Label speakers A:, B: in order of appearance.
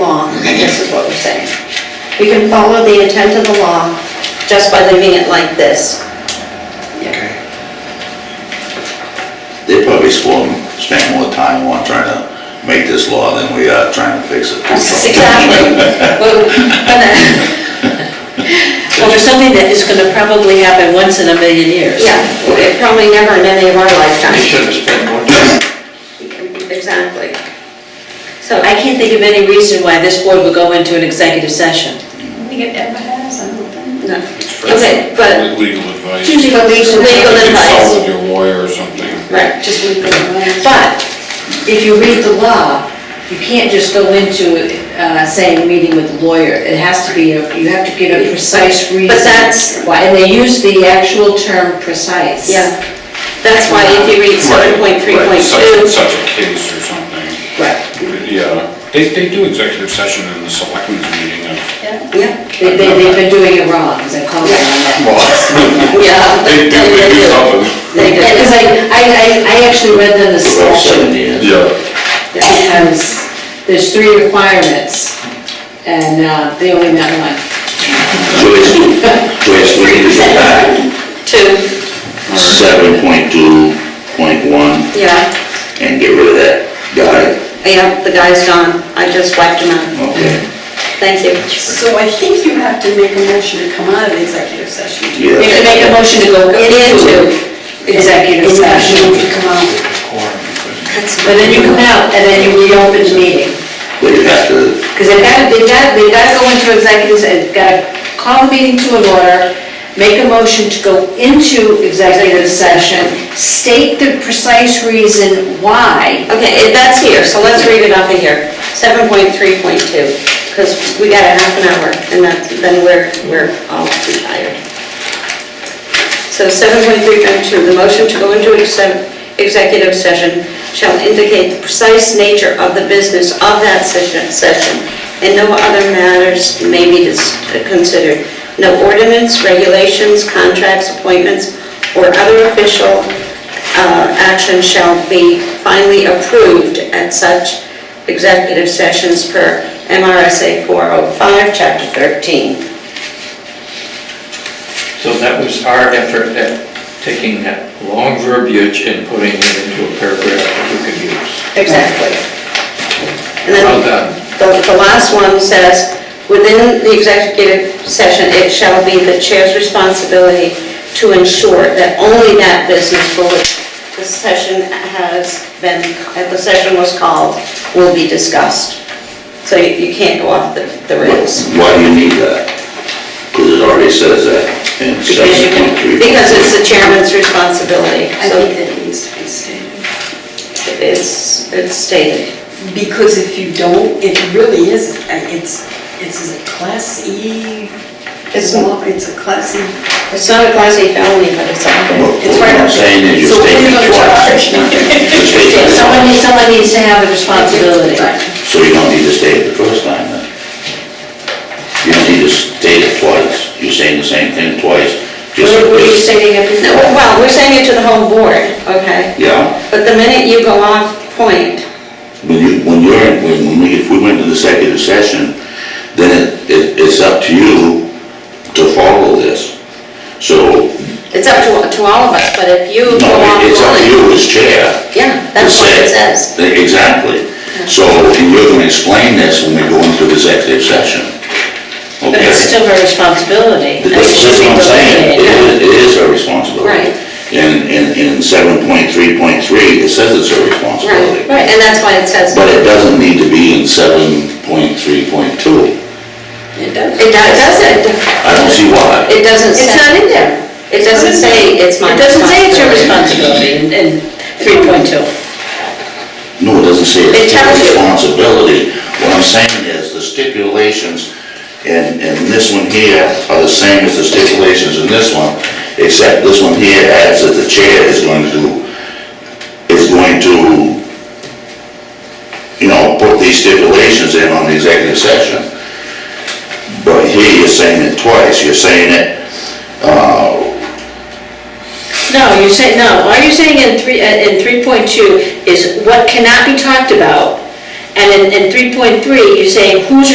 A: We can follow the intent of the law just by leaving it like this.
B: Okay.
C: They probably swung, spent more time on trying to make this law than we are trying to fix it.
A: Exactly. Well, but- uh,
D: Well, there's something that is gonna probably happen once in a million years.
A: Yeah, it probably never in any of our
B: They
A: lifetimes.
B: should have spent more time.
A: Exactly. So
D: I
A: I,
D: can't think of any reason why this board would go into an executive session.
E: I think it ever has, I don't think.
A: no, okay, but
F: Legal advice.
A: usually for legal legal advice.
F: Consult with your lawyer or something.
A: Right.
E: Just leave it alone.
D: But if you read the law, you can't just go into, uh, saying, meeting with the lawyer. It has to be, a- you have to give a precise reason.
A: that's-
D: Why, and they use the actual term precise.
A: Yeah, that's why if you read seven point three
F: Right,
A: point
F: Such,
A: two,
F: such a case or something.
D: Right.
F: Yeah, they, they do executive session in the selectmen's meeting of.
E: Yeah.
A: yeah,
D: They, they- they've been doing it wrong, because I called them on that.
F: Well,
A: yeah.
F: They do, they do something.
D: They did, because I, I, I- I actually read them the
C: About seven
D: statute.
C: years.
F: Yeah.
D: Because there's three requirements, and uh, they only met one.
C: Joyce, Joyce, we need to go back,
A: Two,
C: seven point two, point one,
A: yeah, Oh,
C: and get rid of that guy,
A: yeah, the guy's gone, I just wiped him out,
C: okay?
A: thank you.
E: So I think you have to make a motion to come out of the executive session.
D: They
C: Yeah.
D: can make a motion to go into
A: Into,
D: executive session,
E: To come out.
D: but then you come out, and then you reopen the meeting.
C: But you have to,
D: Because they've got, they've got, they've got to go into executive, they've got to call the meeting to an order, make a motion to go into executive session, state the precise reason why.
A: okay, it- that's here, so let's read it off of here, seven point three point two, because we got a half an hour, and that, then we're, we're all too tired. So seven point three point two, the motion to go into exe- executive session shall indicate the precise nature of the business of that session, session, and no other matters may be dis- considered. No ordinance, regulations, contracts, appointments, or other official uh, action shall be finally approved at such executive sessions per MRSA 405, Chapter 13.
B: So that was our effort at taking that long verbiage and putting it into a paragraph that we could use.
A: Exactly. And then
B: Well done.
A: the, the last one says, within the executive session, it shall be the chair's responsibility to ensure that only that business for which the session has been, that the session was called, will be discussed. So you, you can't go off the, the rails.
C: why do you need that? Because it already says that in
A: Because you
C: seven
A: can,
C: point three.
A: because it's the chairman's responsibility,
E: I
A: so
E: think that it needs to be stated.
A: it's, it's stated.
E: Because if you don't, it really is, uh, it's, it's a class E,
A: It's
E: it's
A: not,
E: a class E.
A: it's not a class A felony, but it's out there.
C: What
E: It's
C: what
E: right
C: I'm
E: up there.
C: saying is
E: So
C: you're
E: what are you
C: stating
E: gonna
C: twice.
E: charge?
C: You're stating it twice.
D: Someone, needs- someone needs to have a responsibility.
C: So you don't need to state it the first time then? You don't need to state it twice. You're saying the same thing twice. Just
D: What what are you
C: because,
D: stating at
A: No, Well, we're saying it to the whole board, okay?
C: yeah,
A: But the minute you go off point,
C: when you, when you're, when we, if we went to the executive session, then it, it, it's up to you to follow this. So,
A: it's up to, to all of us, but if you go
C: no,
A: off
C: it- it's up to
A: point,
C: you as chair.
A: yeah, that's what it says.
C: Exactly. So, and you're gonna explain this when we go into the executive session.
D: But
C: Okay.
D: it's still her responsibility.
C: That's that's what I'm saying, it is, it is her responsibility.
A: Right.
C: And, and in seven point three point three, it says it's her
A: Right,
C: responsibility.
A: right, and that's why it says,
C: But it doesn't need to be in seven point three point two.
E: It does.
A: it do- doesn't,
C: I don't see why.
A: it doesn't say.
D: It's not in there.
A: It doesn't say it's my
D: It doesn't say it's your responsibility in, in three point two.
C: No, it doesn't say
A: It
C: it's her
A: tells you.
C: responsibility. What I'm saying is the stipulations in, in this one here are the same as the stipulations in this one, except this one here adds that the chair is going to, is going to, you know, put these stipulations in on the executive session. But here you're saying it twice, you're saying it, uh,
D: No, you're saying, no, all you're saying in three, uh, in three point two is what cannot be talked about. And in, in three point three, you're saying who's